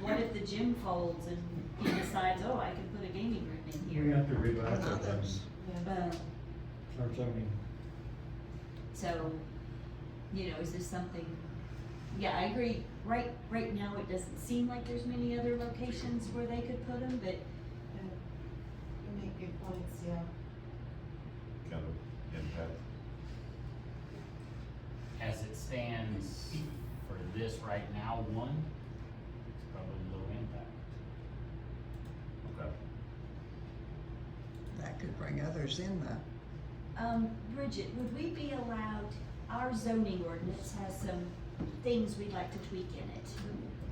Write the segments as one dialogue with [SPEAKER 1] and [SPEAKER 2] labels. [SPEAKER 1] What if the gym folds and he decides, oh, I can put a gaming room in
[SPEAKER 2] We
[SPEAKER 1] here? Uh-huh.
[SPEAKER 2] have to revise our zoning,
[SPEAKER 1] But,
[SPEAKER 2] our zoning.
[SPEAKER 1] so, you know, is this something, yeah, I agree, right, right now, it doesn't seem like there's many other locations where they could put them, but
[SPEAKER 3] You make good points, yeah.
[SPEAKER 4] kind of impact.
[SPEAKER 5] As it stands for this right now, one, it's probably low impact.
[SPEAKER 4] Okay.
[SPEAKER 6] That could bring others in though.
[SPEAKER 1] Um, Bridget, would we be allowed, our zoning ordinance has some things we'd like to tweak in it.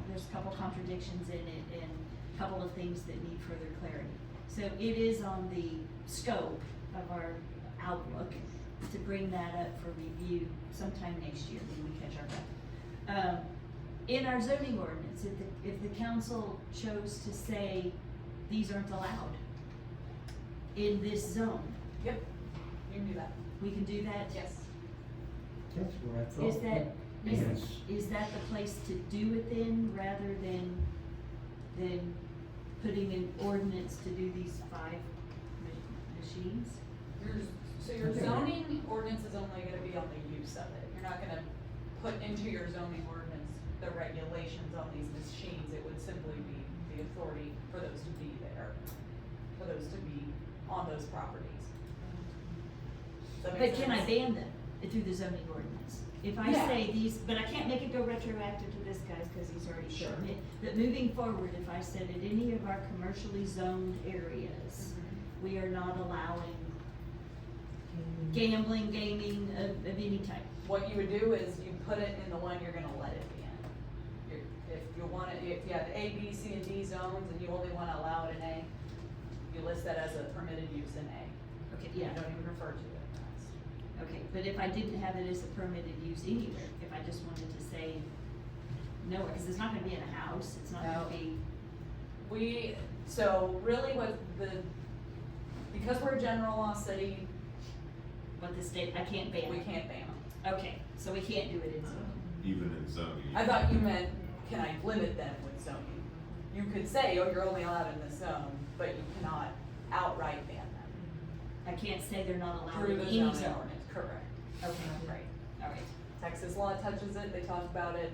[SPEAKER 1] There's a couple contradictions in it and a couple of things that need further clarity. So it is on the scope of our outlook to bring that up for review sometime next year when we catch our breath. Um, in our zoning ordinance, if the, if the council chose to say, these aren't allowed in this zone,
[SPEAKER 3] You can do that.
[SPEAKER 1] we can do that?
[SPEAKER 3] Yes.
[SPEAKER 2] That's what I thought.
[SPEAKER 1] Is that, is,
[SPEAKER 2] Yes.
[SPEAKER 1] is that the place to do it then, rather than, than putting an ordinance to do these five ma- machines?
[SPEAKER 3] Your, so your zoning ordinance is only gonna be on the use of it. You're not gonna put into your zoning ordinance the regulations on these machines. It would simply be the authority for those to be there, for those to be on those properties. Does that
[SPEAKER 1] But
[SPEAKER 3] make
[SPEAKER 1] can I
[SPEAKER 3] sense?
[SPEAKER 1] ban them through the zoning ordinance? If I
[SPEAKER 3] Yeah.
[SPEAKER 1] say these, but I can't make it go retroactive to this guy's, cause he's already
[SPEAKER 3] Sure.
[SPEAKER 1] shown it. But moving forward, if I said at any of our commercially zoned areas, we are not allowing gambling, gaming of, of any type.
[SPEAKER 3] What you would do is you put it in the one you're gonna let it be in. You're- If you wanna, if you have A, B, C, and D zones and you only wanna allow it in A, you list that as a permitted use in A.
[SPEAKER 1] Okay,
[SPEAKER 3] You
[SPEAKER 1] yeah.
[SPEAKER 3] don't even refer to it.
[SPEAKER 1] Okay, but if I didn't have it as a permitted use anywhere, if I just wanted to say, no, because it's not gonna be in a house, it's not gonna
[SPEAKER 3] No.
[SPEAKER 1] be,
[SPEAKER 3] We, so really what the, because we're a general law city,
[SPEAKER 1] what the state, I can't ban
[SPEAKER 3] we
[SPEAKER 1] it.
[SPEAKER 3] can't ban them.
[SPEAKER 1] Okay, so we can't do it in zoning.
[SPEAKER 4] Even in zoning.
[SPEAKER 3] I thought you meant, can I limit them with zoning? You could say, oh, you're only allowed in this zone, but you cannot outright ban them
[SPEAKER 1] I can't say they're not allowed
[SPEAKER 3] through
[SPEAKER 1] in
[SPEAKER 3] the
[SPEAKER 1] any
[SPEAKER 3] zoning
[SPEAKER 1] zone.
[SPEAKER 3] ordinance, correct?
[SPEAKER 1] Okay,
[SPEAKER 3] Right.
[SPEAKER 1] alright,
[SPEAKER 3] Texas law touches it, they talk about it.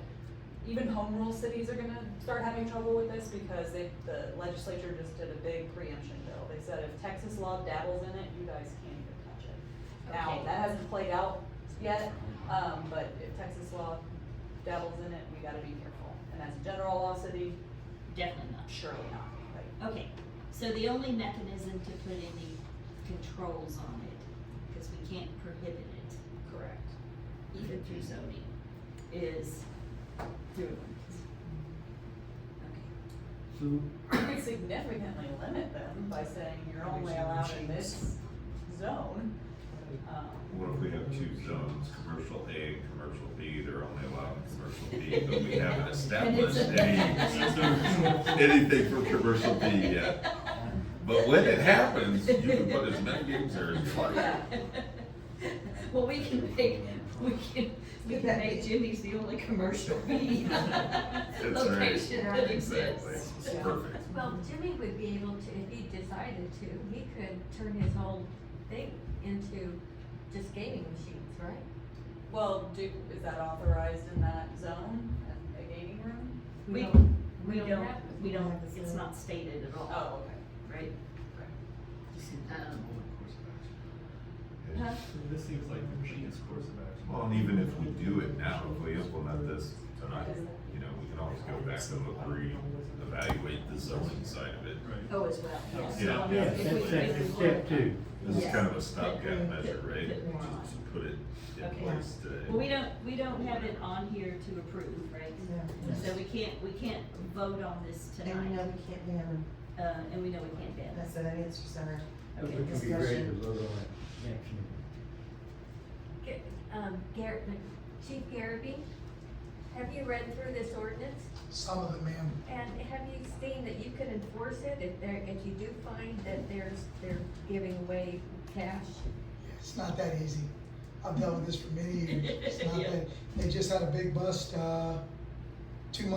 [SPEAKER 3] Even home rule cities are gonna start having trouble with this because they, the legislature just did a big preemption bill. They said if Texas law dabbles in it, you guys can't even touch it. Now,
[SPEAKER 1] Okay.
[SPEAKER 3] that hasn't played out yet, um, but if Texas law dabbles in it, we gotta be careful. And as a general law city,
[SPEAKER 1] definitely not.
[SPEAKER 3] surely not, right?
[SPEAKER 1] Okay, so the only mechanism to put any controls on it, because we can't prohibit it,
[SPEAKER 3] Correct.
[SPEAKER 1] even through zoning, is through ordinance. Okay.
[SPEAKER 2] So,
[SPEAKER 3] You could significantly limit them by saying you're only allowed in this zone. Um,
[SPEAKER 4] What if we have two zones, commercial A and commercial B, they're only allowed in commercial B, but we haven't established any, anything for commercial E B yet. But when it happens, you can put as many games there as you like.
[SPEAKER 1] Well, we can make, we can, we can make Jimmy's the only commercial B
[SPEAKER 4] That's right.
[SPEAKER 1] location that
[SPEAKER 4] Exactly,
[SPEAKER 1] exists.
[SPEAKER 4] it's perfect.
[SPEAKER 7] Well, Jimmy would be able to, if he decided to, he could turn his whole thing into just gaming machines, right?
[SPEAKER 3] Well, do, is that authorized in that zone, a- a gaming room?
[SPEAKER 1] We,
[SPEAKER 7] don't-
[SPEAKER 1] we don't,
[SPEAKER 7] have-
[SPEAKER 1] we don't, it's not stated at all,
[SPEAKER 3] Oh, okay.
[SPEAKER 1] right? Um, huh?
[SPEAKER 8] So This seems like the machine's course of action.
[SPEAKER 4] Well, and even if we do it now, if we implement this tonight, you know, we can always go back and re-evaluate the zoning side of it.
[SPEAKER 8] Right.
[SPEAKER 1] Oh, as well, yes.
[SPEAKER 4] Yeah.
[SPEAKER 1] So, I mean,
[SPEAKER 2] yeah,
[SPEAKER 1] if we-
[SPEAKER 2] that's, that's
[SPEAKER 1] if we
[SPEAKER 2] step
[SPEAKER 1] want-
[SPEAKER 2] two.
[SPEAKER 4] This is
[SPEAKER 1] Yeah.
[SPEAKER 4] kind of a stopgap measure, right?
[SPEAKER 1] Put more on.
[SPEAKER 4] Just to put it in
[SPEAKER 1] Okay.
[SPEAKER 4] place today.
[SPEAKER 1] Well, we don't, we don't have it on here to approve, right? So we can't, we can't vote on this
[SPEAKER 9] And we know
[SPEAKER 1] tonight,
[SPEAKER 9] we can't ban them,
[SPEAKER 1] uh, and we know we can't ban
[SPEAKER 9] that's at an answer center.
[SPEAKER 2] We
[SPEAKER 1] Okay.
[SPEAKER 2] can be ready to vote on it next meeting.
[SPEAKER 7] Ga- Um, Garrett, Chief Garrity, have you read through this ordinance?
[SPEAKER 10] Some of them, ma'am,
[SPEAKER 7] And have you seen that you can enforce it if there, if you do find that there's, they're giving away cash?
[SPEAKER 10] it's not that easy. I've dealt with this for many years. It's not
[SPEAKER 1] Yeah.
[SPEAKER 10] that, they just had a big bust, uh,